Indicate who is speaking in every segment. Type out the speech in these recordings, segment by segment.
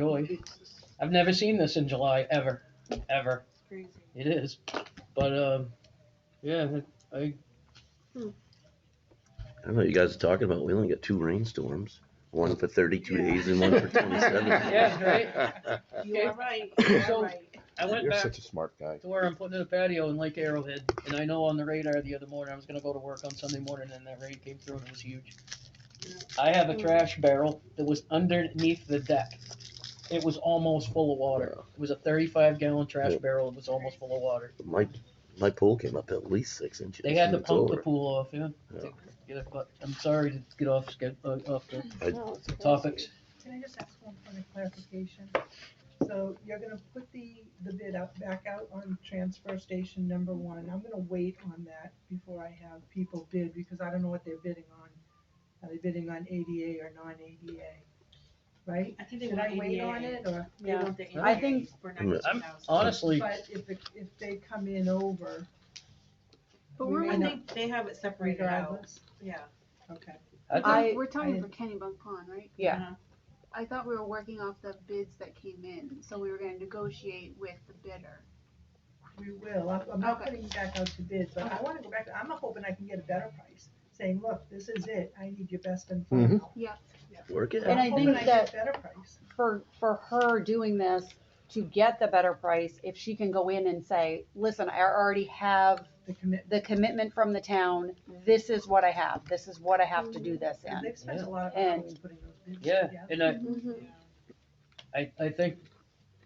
Speaker 1: Joy. I've never seen this in July ever, ever.
Speaker 2: Crazy.
Speaker 1: It is, but um, yeah, I, I
Speaker 3: I know you guys are talking about. We only got two rainstorms, one for 32 days and one for 27.
Speaker 1: Yeah, right?
Speaker 2: You
Speaker 1: Okay.
Speaker 2: are right. You
Speaker 1: So-
Speaker 2: are right.
Speaker 1: I went
Speaker 4: You're
Speaker 1: back
Speaker 4: such a smart guy.
Speaker 1: to where I'm putting in a patio in Lake Arrowhead, and I know on the radar the other morning I was gonna go to work on Sunday morning, and that rain came through and it was huge. I have a trash barrel that was underneath the deck. It was almost full of water. It was a 35 gallon trash
Speaker 3: Yeah.
Speaker 1: barrel. It was almost full of water.
Speaker 3: My my pool came up at least six inches.
Speaker 1: They had
Speaker 3: and
Speaker 1: to
Speaker 3: it's
Speaker 1: pump
Speaker 3: over.
Speaker 1: the pool off, yeah.
Speaker 3: Yeah.
Speaker 1: Get it, but I'm sorry to get off sched- uh, off the
Speaker 3: I-
Speaker 2: No, it's crazy.
Speaker 1: topics.
Speaker 5: Can I just ask one point of clarification? So you're gonna put the, the bid up, back out on transfer station number one. I'm gonna wait on that before I have people bid, because I don't know what they're bidding on. Are they bidding on ADA or non-ADA, right?
Speaker 2: I think they
Speaker 5: Should
Speaker 2: want
Speaker 5: I wait
Speaker 2: ADA.
Speaker 5: on it, or?
Speaker 2: They want the
Speaker 1: I
Speaker 2: ADA
Speaker 6: think-
Speaker 2: for
Speaker 3: I'm-
Speaker 2: 19,000.
Speaker 1: Honestly,
Speaker 5: But if, it- if they come in over
Speaker 2: But
Speaker 5: we
Speaker 2: we're
Speaker 5: may
Speaker 2: when they,
Speaker 5: not-
Speaker 2: they have it separated out,
Speaker 5: regardless,
Speaker 2: yeah.
Speaker 5: okay.
Speaker 1: I think,
Speaker 6: I-
Speaker 7: We're
Speaker 5: I-
Speaker 7: talking for Kennybunk Pond, right?
Speaker 6: Yeah.
Speaker 2: Uh-huh.
Speaker 7: I thought we were working off the bids that came in, so we were gonna negotiate with the bidder.
Speaker 5: We will, I'm, I'm not
Speaker 7: Okay.
Speaker 5: putting back out to bid, but I wanna go back, I'm hoping I can get a better price, saying, look, this is it, I need your best and final.
Speaker 3: Work it
Speaker 6: And
Speaker 3: out.
Speaker 6: I
Speaker 5: I'm hoping
Speaker 6: think
Speaker 5: get
Speaker 6: that-
Speaker 5: Better price.
Speaker 6: for for her doing this to get the better price if she can go in and say listen i already have
Speaker 5: the commitment.
Speaker 6: the commitment from the town this is what i have this is what i have to do this in
Speaker 5: They've spent
Speaker 1: Yeah.
Speaker 5: a lot of
Speaker 6: And-
Speaker 5: hours putting those bids
Speaker 1: yeah,
Speaker 5: together.
Speaker 1: and I,
Speaker 7: Mm-hmm.
Speaker 2: Yeah.
Speaker 1: I, I think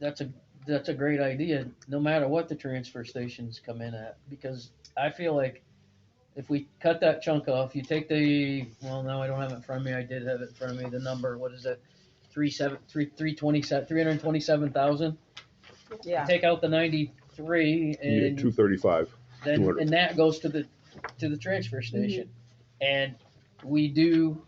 Speaker 1: that's a, that's a great idea, no matter what the transfer stations come in at, because I feel like if we cut that chunk off, you take the, well, no, I don't have it in front of me, I did have it in front of me, the number, what is it? Three seven, three, three twenty se- three hundred and twenty-seven thousand,
Speaker 6: yeah
Speaker 1: take out the ninety-three and.
Speaker 4: Two thirty-five.
Speaker 1: then
Speaker 4: 200.
Speaker 1: and that goes to the to the transfer station
Speaker 6: Mm-hmm.
Speaker 1: and we do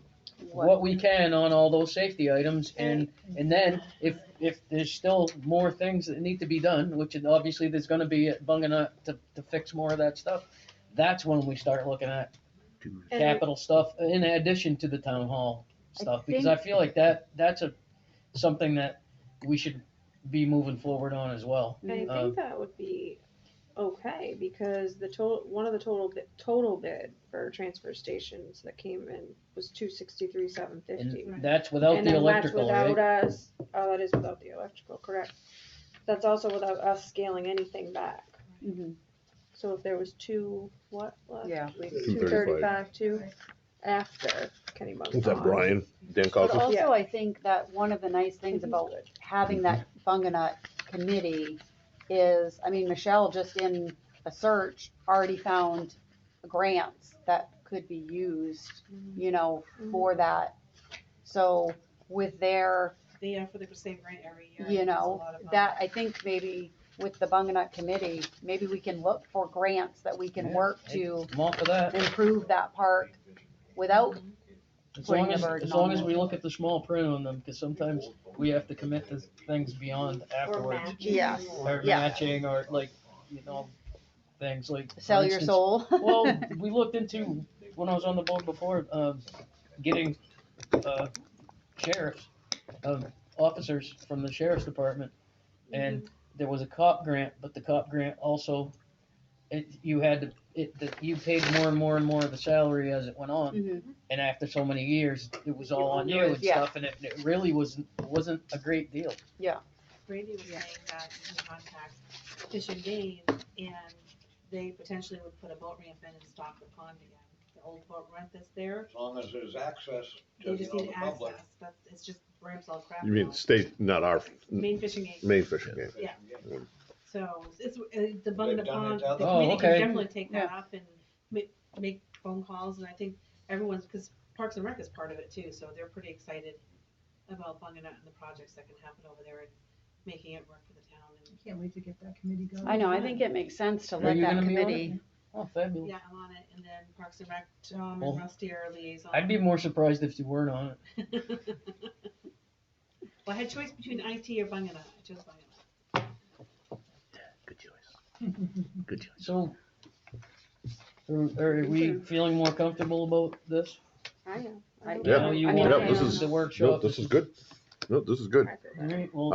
Speaker 1: what we can on all those safety items and and then if if there's still more things that need to be done which is obviously there's going to be at Bunganut to, to fix more of that stuff that's when we start looking at
Speaker 2: And-
Speaker 1: capital stuff in addition to the town hall
Speaker 6: I
Speaker 1: stuff because i feel like that that's a something that we should be moving forward on as well
Speaker 6: Mm.
Speaker 8: I
Speaker 1: Um,
Speaker 8: think that would be okay, because the total, one of the total, bid total bid for transfer stations that came in was two sixty-three, seven fifty.
Speaker 1: and that's without
Speaker 8: And
Speaker 1: the
Speaker 8: then that's
Speaker 1: electrical right
Speaker 8: without us, oh, that is without the electrical, correct. That's also without us scaling anything back.
Speaker 6: Mhm.
Speaker 8: So if there was two, what, left?
Speaker 6: Yeah.
Speaker 8: Two thirty-five, two after Kenny Bunk.
Speaker 4: What's that, Brian? Dan
Speaker 6: but
Speaker 4: Cosmo?
Speaker 6: also i think that one of the nice things about having that bunganut committee is i mean michelle just in a search already found grants that could be used you know for that so with their
Speaker 2: They, uh, for the same grant every year.
Speaker 6: you
Speaker 2: It's a
Speaker 6: know,
Speaker 2: lot of, um,
Speaker 6: that, I think maybe with the Bunganut committee, maybe we can look for grants that we can
Speaker 1: Yeah,
Speaker 6: work
Speaker 1: I-
Speaker 6: to
Speaker 1: I'm all for that
Speaker 6: improve that park without,
Speaker 1: As
Speaker 6: Bring
Speaker 1: long
Speaker 6: the
Speaker 1: as,
Speaker 6: burden
Speaker 1: as long
Speaker 6: on
Speaker 1: as
Speaker 6: them.
Speaker 1: we look at the small print on them, because sometimes we have to commit to things beyond afterwards.
Speaker 6: yes,
Speaker 1: Or
Speaker 6: yeah.
Speaker 1: matching, or like, you know, things like. for
Speaker 6: sell your
Speaker 1: instance-
Speaker 6: soul.
Speaker 1: Well, we looked into, when I was on the board before, um, getting, uh, sheriffs, um, officers from the sheriff's department. And there was a cop grant, but the cop grant also, it, you had to, it, that you paid more and more and more of the salary as it went on
Speaker 6: Mhm.
Speaker 1: and after so many years, it was all on you
Speaker 6: yours,
Speaker 1: and
Speaker 6: yeah.
Speaker 1: stuff, and it, it really wasn't wasn't a great deal.
Speaker 2: Brady was saying that you can contact Fish and Game, and they potentially would put a boat ramp in and stock the pond again. The old boat ramp that's there,
Speaker 9: As long as there's access to,
Speaker 2: they
Speaker 9: you
Speaker 2: just
Speaker 9: know,
Speaker 2: need
Speaker 9: the public.
Speaker 2: access, that's, it's just ramps all crap.
Speaker 4: You mean
Speaker 2: now.
Speaker 4: state, not our
Speaker 2: Main Fishing Game,
Speaker 4: main fishing game?
Speaker 2: Yeah. so it's, uh, the bung the
Speaker 9: They've done it
Speaker 2: pond,
Speaker 9: to
Speaker 2: the
Speaker 9: other-
Speaker 1: Oh,
Speaker 2: committee
Speaker 1: okay.
Speaker 2: can definitely take that up and ma- make phone calls, and I think everyone's, cause Parks and Rec is part of it too, so they're pretty excited about bunging out and the projects that can happen over there and making it work for the town and.
Speaker 5: Can't wait to get that committee going.
Speaker 6: I know, I think it makes sense to
Speaker 1: Are
Speaker 6: let
Speaker 1: you
Speaker 6: that
Speaker 1: gonna be on it?
Speaker 6: committee,
Speaker 1: Oh, fabulous!
Speaker 2: Yeah, I'm on it, and then Parks and Rec, Tom
Speaker 1: Well,
Speaker 2: and Rusty are liaison.
Speaker 1: I'd be more surprised if you weren't on it.
Speaker 2: Well, I had choice between IT or Bungana, I chose Bungana.
Speaker 3: Good choice. Good choice.
Speaker 1: So, are, are we feeling more comfortable about this?
Speaker 8: I know.
Speaker 6: I-
Speaker 8: know.
Speaker 1: I know
Speaker 7: Mm-hmm.
Speaker 4: Yeah.
Speaker 1: you
Speaker 6: I mean,
Speaker 1: want
Speaker 4: yeah, this
Speaker 1: to do
Speaker 4: is-
Speaker 1: the
Speaker 4: No,
Speaker 1: workshop.
Speaker 4: this is good.
Speaker 10: No, this is good.
Speaker 11: I feel better.
Speaker 3: All right, well,